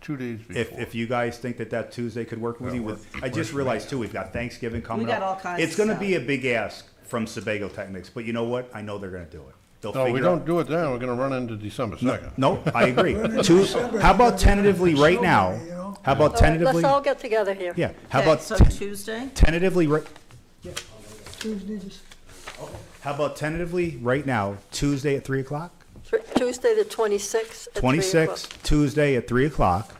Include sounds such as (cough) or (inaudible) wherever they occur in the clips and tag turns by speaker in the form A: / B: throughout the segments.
A: two days before.
B: If, if you guys think that that Tuesday could work with
A: That
B: you, with
A: works.
B: I just realized too, we've got Thanksgiving coming
C: got
B: up.
C: all kinds
B: It's
C: of
B: going to
C: stuff.
B: be a big ask from Sebago Technics, but you know what? I know they're going to do it. They'll
A: No, we
B: figure
A: don't
B: out.
A: do it then, we're gonna run into December second.
B: No,
A: (laughs)
B: I agree. Two, how about tentatively right now? How about
D: All right,
B: tentatively?
D: Let's all get together here.
B: Yeah, how
C: Okay,
B: about
C: So
B: t-
C: Tuesday?
B: tentatively right?
E: Tuesday, just-
B: How about tentatively right now, Tuesday at three o'clock?
D: Thr- Tuesday, the 26th. at three
B: Twenty-six,
D: o'clock.
B: Tuesday at three o'clock.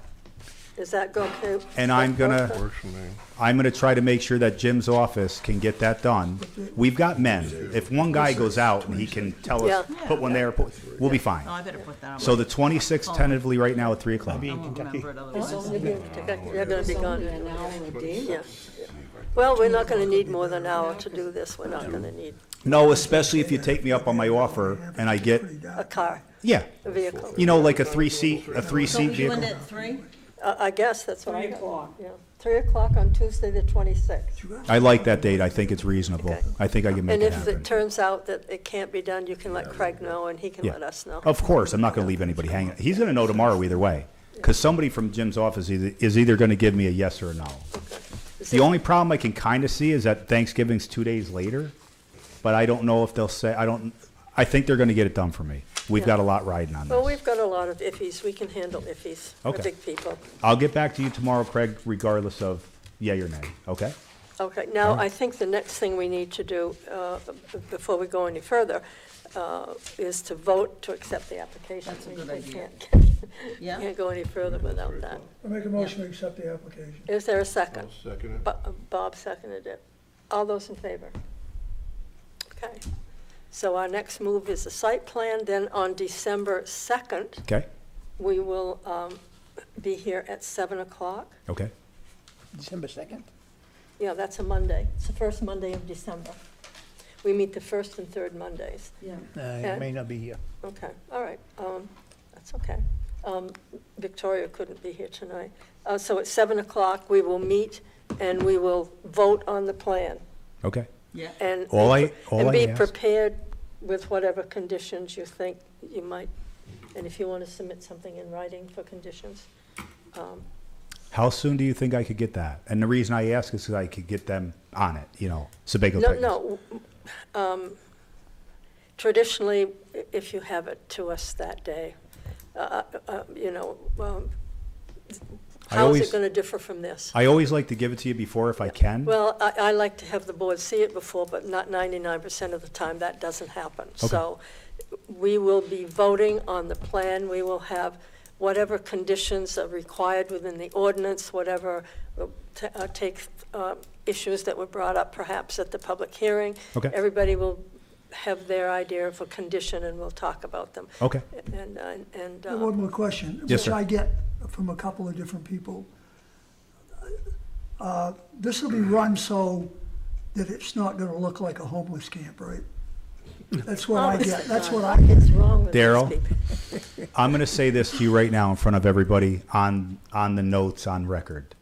D: Is that go- okay?
B: And I'm gonna-
A: Works for me.
B: I'm gonna try to make sure that Jim's office can get that done. We've got men. If one guy goes out and he can tell us,
D: Yeah.
B: put one there, put- we'll be fine.
C: No, I better put that on.
B: So the twenty-sixth tentatively right now at three o'clock.
C: I won't remember it otherwise.
D: You're gonna be gone. Yeah. Well, we're not gonna need more than an hour to do this. We're not gonna need
B: No, especially if you take me up on my offer and I get,
D: a car,
B: yeah,
D: a vehicle.
B: you know, like a three-seat, a
C: So
B: three-seat
C: you end
B: vehicle.
C: at three?
D: I I guess that's what I.
C: Three o'clock.
D: Yeah, three o'clock on Tuesday, the 26th.
B: I like that date. I think it's reasonable.
D: Okay.
B: I think I can make
D: And
B: it
D: if it
B: happen.
D: turns out that it can't be done, you can let Craig know and he can
B: Yeah. Oh,
D: let us know.
B: Of course, I'm not going to leave anybody hanging. He's going to know tomorrow either way, because somebody from Jim's office is is either going to give me a yes or a no. The only problem I can kind of see is that Thanksgiving's two days later, but I don't know if they'll say, I don't, I think they're going to get it done for me. We've got a lot riding on
D: Well,
B: this.
D: we've got a lot of iffies. We can handle iffies. We're
B: Okay.
D: big people.
B: I'll get back to you tomorrow, Craig, regardless of yay or nay, okay?
D: Okay, now, I think the next thing we need to do, uh, b- before we go any further, uh, is to vote to accept the application.
C: That's a
D: We-
C: good
D: we
C: idea.
D: can't-
C: Yeah.
D: Can't go any further without that.
E: I make a motion to accept the application.
D: Is there a second?
A: Second it.
D: Bo- uh, Bob seconded it. All those in favor? Okay. So our next move is the site plan, then on December 2nd,
B: Okay,
D: we will um, be here at 7 o'clock.
B: okay.
F: December 2nd?
D: Yeah, that's a Monday. It's the first Monday of December. We meet the first and third Mondays.
C: Yeah.
F: I may not be here.
D: Okay, all right, um, that's okay. Um, Victoria couldn't be here tonight. Uh, so at seven o'clock, we will meet and we will vote on the plan
B: Okay.
C: Yeah.
D: and.
B: All I- all
D: And
B: I
D: be
B: ask-
D: prepared with whatever conditions you think you might, and if you want to submit something in writing for conditions.
B: How soon do you think I could get that? And the reason I ask is because I could get them on it, you know, Sebago
D: No,
B: Titans.
D: no, w- um, traditionally, i- if you have it to us that day, uh, uh, you know, um,
B: I
D: how is
B: always-
D: it going to differ from this?
B: I always like to give it to you before if I can.
D: Well, I, I like to have the board see it before, but not ninety-nine percent of the time, that doesn't happen. So we will be voting on the plan, we will have whatever conditions are required within the ordinance, whatever uh, ta- uh, take uh, issues that were brought up perhaps at the public hearing.
B: Okay.
D: Everybody will have their idea of a condition and we'll talk about them.
B: Okay.
D: And, uh, and.
E: I
D: uh,
E: have One more question.
B: Yes, sir.
E: Which I get from a couple of different people. Uh, This will be run so that it's not gonna look like a homeless camp, right? That's what I
D: honest
E: get,
D: to
E: that's
D: God,
E: what I get.
D: What is wrong with these
B: Daryl?
D: people?
B: I'm going to say this to you right now in front of everybody on on the notes on record.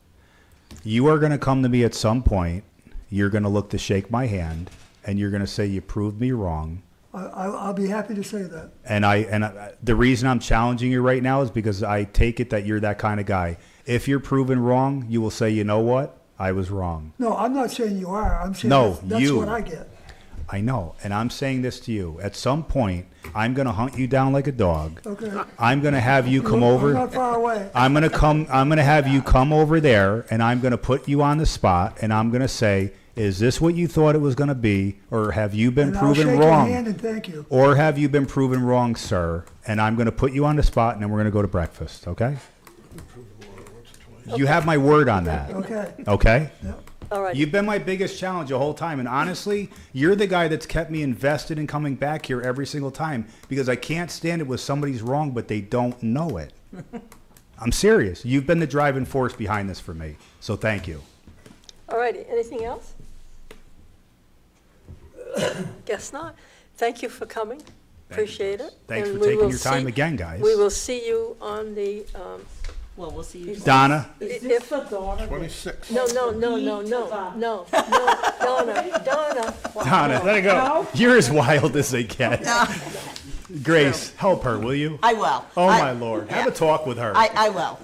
B: You are going to come to me at some point. You're going to look to shake my hand, and you're going to say you proved me wrong.
E: I, I- I'll be happy to say that.
B: And I and I, the reason I'm challenging you right now is because I take it that you're that kind of guy. If you're proven wrong, you will say, you know what, I was wrong.
E: No, I'm not saying you are, I'm saying
B: No,
E: that's- that's
B: you.
E: what I get.
B: I know, and I'm saying this to you. At some point, I'm going to hunt you down like a dog.
E: Okay.
B: I'm going to have you come
E: Look,
B: over.
E: I'm not far away.
B: I'm gonna come. I'm gonna have you come over there, and I'm gonna put you on the spot, and I'm gonna say, "Is this what you thought it was gonna be, or have you been
E: And I'll
B: proven
E: shake your
B: wrong,
E: hand and thank you.
B: or have you been proven wrong, sir?" And I'm gonna put you on the spot, and then we're gonna go to breakfast. Okay? You have my word on that.
E: Okay,
B: Okay.
D: All right.
B: You've been my biggest challenge the whole time, and honestly, you're the guy that's kept me invested in coming back here every single time because I can't stand it when somebody's wrong but they don't know it. I'm serious. You've been the driving force behind this for me, so thank you.
D: All righty, anything else? Guess not. Thank you for coming. Appreciate it.
B: Thanks
D: And
B: for
D: we
B: taking
D: will
B: your time
D: see-
B: again, guys.
D: We will see you on the, um,
C: Well, we'll see you.
B: Donna,
C: Is
D: if-
C: this the daughter?
A: Twenty-six.
D: no, no, no, no, no, no, no, Donna, Donna.
B: Donna,
A: it go.
B: you're as wild as they get. Grace, help her, will you?
C: I will.
B: Oh
C: I-
B: my lord, have a talk with her.
C: I, I will.